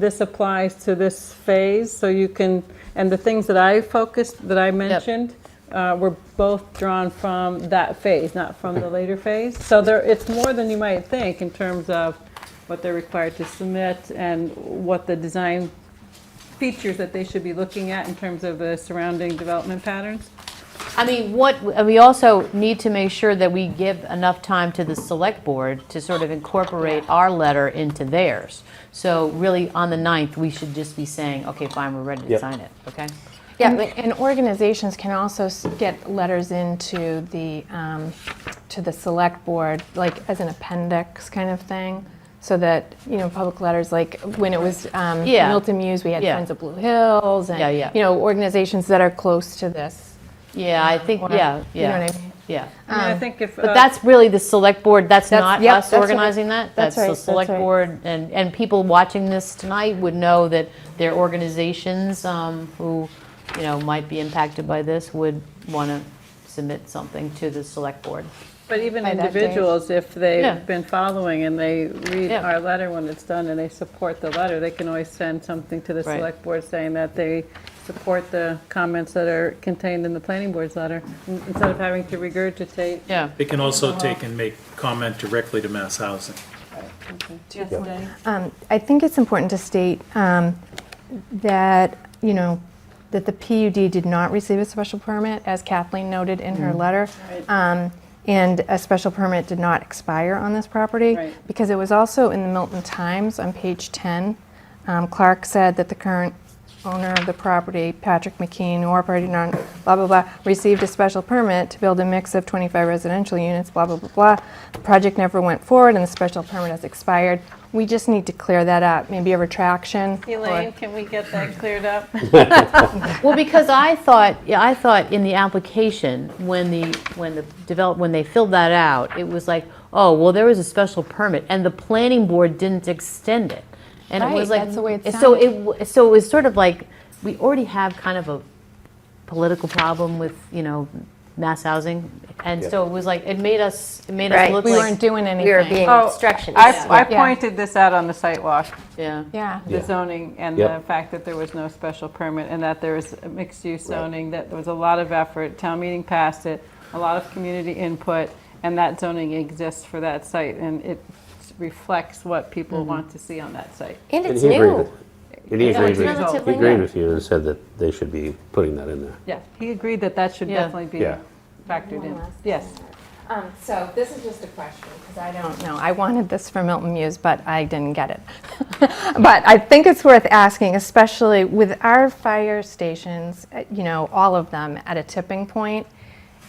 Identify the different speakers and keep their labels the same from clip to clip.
Speaker 1: this applies to this phase, so you can, and the things that I focused, that I mentioned, uh, were both drawn from that phase, not from the later phase. So there, it's more than you might think in terms of what they're required to submit and what the design features that they should be looking at in terms of the surrounding development patterns.
Speaker 2: I mean, what, we also need to make sure that we give enough time to the select board to sort of incorporate our letter into theirs. So really, on the 9th, we should just be saying, okay, fine, we're ready to
Speaker 3: Yep.
Speaker 2: sign it, okay?
Speaker 4: Yeah, but- and organizations can also s- get letters into the, um, to the select board, like as an appendix kind of thing, so that, you know, public letters, like when it was um,
Speaker 2: Yeah.
Speaker 4: Milton Muse, we had
Speaker 2: Yeah.
Speaker 4: Friends of Blue Hills,
Speaker 2: Yeah, yeah.
Speaker 4: and, you know, organizations that are close to this.
Speaker 2: Yeah, I think,
Speaker 4: Or-
Speaker 2: yeah,
Speaker 4: you know
Speaker 2: yeah.
Speaker 4: what I mean?
Speaker 2: Yeah.
Speaker 1: I mean, I think if.
Speaker 2: Um, But
Speaker 1: uh,
Speaker 2: that's really the select board, that's
Speaker 4: That's-
Speaker 2: not
Speaker 4: yep,
Speaker 2: us
Speaker 4: that's right.
Speaker 2: organizing that?
Speaker 4: That's right,
Speaker 2: the
Speaker 4: that's
Speaker 2: select
Speaker 4: right.
Speaker 2: board, and, and people watching this tonight would know that their organizations um, who, you know, might be impacted by this would want to submit something to the select board.
Speaker 1: But even
Speaker 4: by that day.
Speaker 1: individuals, if
Speaker 2: Yeah.
Speaker 1: they've been following and they read
Speaker 2: Yeah.
Speaker 1: our letter when it's done and they support the letter, they can always send something to the
Speaker 2: Right.
Speaker 1: select board saying that they support the comments that are contained in the planning board's letter, in- instead of having to regurgitate.
Speaker 2: Yeah.
Speaker 5: They can also take and make comment directly to Mass Housing.
Speaker 1: Yes, Danny?
Speaker 4: Um, I think it's important to state um, that, you know, that the PUD did not receive a special permit, as Kathleen noted in her letter. Um, And a special permit did not expire on this property.
Speaker 1: Right.
Speaker 4: Because it was also in the Milton Times on page 10, um, Clark said that the current owner of the property, Patrick McKean, who operated on blah, blah, blah, received a special permit to build a mix of 25 residential units, blah, blah, blah, blah. The project never went forward and the special permit has expired. We just need to clear that up, maybe a retraction. or-
Speaker 1: Elaine, can we get that cleared up?
Speaker 2: Well, because I thought, yeah, I thought in the application, when the, when the develop, when they filled that out, it was like, oh, well, there was a special permit, and the planning board didn't extend it. And it was
Speaker 4: Right,
Speaker 2: like.
Speaker 4: that's the way it
Speaker 2: So it, w- so it was sort of like, we already have kind of a political problem with, you know, mass housing. And
Speaker 3: Yeah.
Speaker 2: so it was like, it made us, it made us
Speaker 6: Right.
Speaker 2: look
Speaker 4: We
Speaker 2: like.
Speaker 4: weren't doing
Speaker 6: We were
Speaker 4: anything.
Speaker 6: being
Speaker 1: Oh,
Speaker 6: obstructionist.
Speaker 1: I, I
Speaker 4: Yeah.
Speaker 1: pointed this out on the sidewalk,
Speaker 2: Yeah.
Speaker 4: Yeah.
Speaker 1: the zoning and
Speaker 3: Yeah.
Speaker 1: the fact that there was no special permit and that there was mixed-use zoning, that there was a lot of effort, town meeting passed it, a lot of community input, and that zoning exists for that site, and it reflects what people want to see on that site.
Speaker 6: And
Speaker 3: And
Speaker 6: it's
Speaker 3: he agreed
Speaker 6: new.
Speaker 3: with- And he
Speaker 1: Yeah,
Speaker 3: agreed
Speaker 1: it's
Speaker 3: with,
Speaker 1: relatively
Speaker 3: he agreed
Speaker 6: new.
Speaker 3: with you and said that they should be putting that in there.
Speaker 1: Yeah, he agreed that that should
Speaker 2: Yeah.
Speaker 1: definitely be
Speaker 3: Yeah.
Speaker 1: factored in.
Speaker 4: One last
Speaker 1: Yes.
Speaker 4: Um, So this is just a question, because I don't know. I wanted this for Milton Muse, but I didn't get it. But I think it's worth asking, especially with our fire stations, uh, you know, all of them at a tipping point.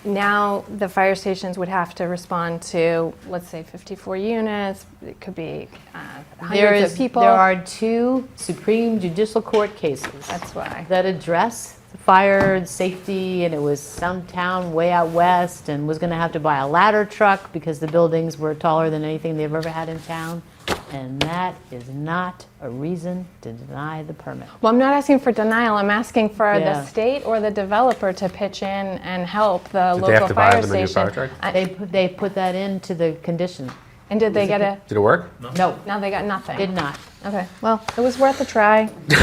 Speaker 4: Now, the fire stations would have to respond to, let's say, 54 units, it could be uh,
Speaker 2: There
Speaker 4: hundreds
Speaker 2: is,
Speaker 4: of
Speaker 2: there
Speaker 4: people.
Speaker 2: are two Supreme Judicial Court cases.
Speaker 4: That's why.
Speaker 2: that address the fire and safety, and it was some town way out west, and was gonna have to buy a ladder truck because the buildings were taller than anything they've ever had in town. And that is not a reason to deny the permit.
Speaker 4: Well, I'm not asking for denial, I'm asking for
Speaker 2: Yeah.
Speaker 4: the state or the developer to pitch in and help the
Speaker 7: Did they have
Speaker 4: local
Speaker 7: to buy
Speaker 4: fire
Speaker 7: them a new fire
Speaker 4: station.
Speaker 7: truck?
Speaker 2: They, put- they put that into the condition.
Speaker 4: And did they get a,
Speaker 7: Did it work?
Speaker 2: No,
Speaker 4: now they got nothing?
Speaker 2: did not.
Speaker 4: Okay, well, it was worth a try. You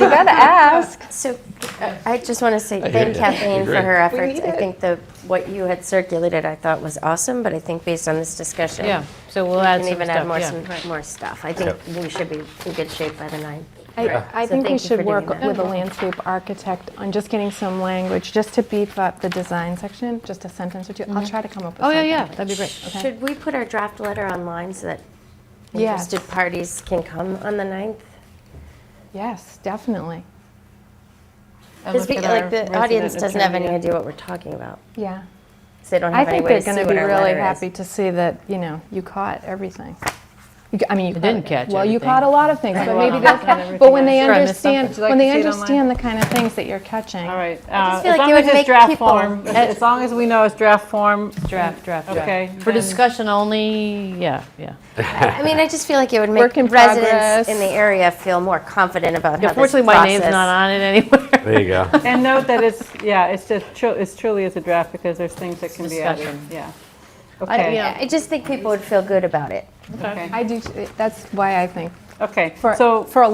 Speaker 4: gotta ask.
Speaker 6: So uh, I just want to say
Speaker 7: hear
Speaker 6: thank
Speaker 7: ya.
Speaker 6: Kathleen for
Speaker 7: Agree.
Speaker 6: her efforts.
Speaker 4: need
Speaker 6: I
Speaker 4: it.
Speaker 6: think the, what you had circulated, I thought was awesome, but I think based on this discussion.
Speaker 2: Yeah, so we'll
Speaker 6: we
Speaker 2: add
Speaker 6: can
Speaker 2: some
Speaker 6: even
Speaker 2: stuff,
Speaker 6: add more,
Speaker 2: yeah.
Speaker 6: some more stuff. I think we should be in good shape by the ninth.
Speaker 4: I, I
Speaker 6: So
Speaker 4: think we
Speaker 6: thank you for
Speaker 4: should
Speaker 6: doing
Speaker 4: work
Speaker 6: that.
Speaker 4: with a landscape architect on just getting some language, just to beef up the design section, just a sentence or two. I'll try to come up with
Speaker 2: Oh,
Speaker 4: something.
Speaker 2: yeah, yeah, that'd be great.
Speaker 6: Should we put our draft letter online so that
Speaker 4: Yes.
Speaker 6: interested parties can come on the ninth?
Speaker 4: Yes, definitely.
Speaker 6: Because
Speaker 1: look at our
Speaker 6: like the
Speaker 1: resident
Speaker 6: audience doesn't have any
Speaker 1: attorney.
Speaker 6: idea what we're talking about.
Speaker 4: Yeah.
Speaker 6: So they don't
Speaker 4: I
Speaker 6: have any
Speaker 4: think
Speaker 6: way
Speaker 4: they're
Speaker 6: to see
Speaker 4: gonna
Speaker 6: what
Speaker 4: be
Speaker 6: our
Speaker 4: really
Speaker 6: letter is.
Speaker 4: happy to see that, you know, you caught everything. You ca- I mean, you caught
Speaker 2: didn't
Speaker 4: it.
Speaker 2: catch
Speaker 4: Well, you
Speaker 2: everything.
Speaker 4: caught a lot of things, but maybe
Speaker 1: Well,
Speaker 4: that's,
Speaker 1: not everything.
Speaker 4: but when they
Speaker 1: Sure, I missed
Speaker 4: understand,
Speaker 1: something. Would you
Speaker 4: when they
Speaker 1: like to see it online?
Speaker 4: understand the kind of things that you're catching.
Speaker 1: All right. uh,
Speaker 6: just feel
Speaker 1: as
Speaker 6: like
Speaker 1: long
Speaker 6: it
Speaker 1: as
Speaker 6: would
Speaker 1: it's
Speaker 6: make
Speaker 1: draft
Speaker 6: people-
Speaker 1: form, as long as we know it's draft form,
Speaker 2: Draft, draft, draft.
Speaker 1: okay.
Speaker 2: For
Speaker 1: then-
Speaker 2: discussion only, yeah, yeah.
Speaker 6: I mean, I just feel like it would make
Speaker 4: Work in progress.
Speaker 6: residents in the area feel more confident about how this
Speaker 2: Unfortunately, my name's
Speaker 6: process-
Speaker 2: not on it anywhere.
Speaker 3: There you go.
Speaker 1: And note that it's, yeah, it's just, tru- it's truly is a draft because there's things that can be added.
Speaker 2: Discussion.
Speaker 1: Yeah.
Speaker 2: yeah.
Speaker 1: Okay,
Speaker 6: I just think people would feel good about it.
Speaker 1: okay,
Speaker 4: I do, t- that's why I think,
Speaker 1: okay.
Speaker 4: for,
Speaker 1: So
Speaker 4: for a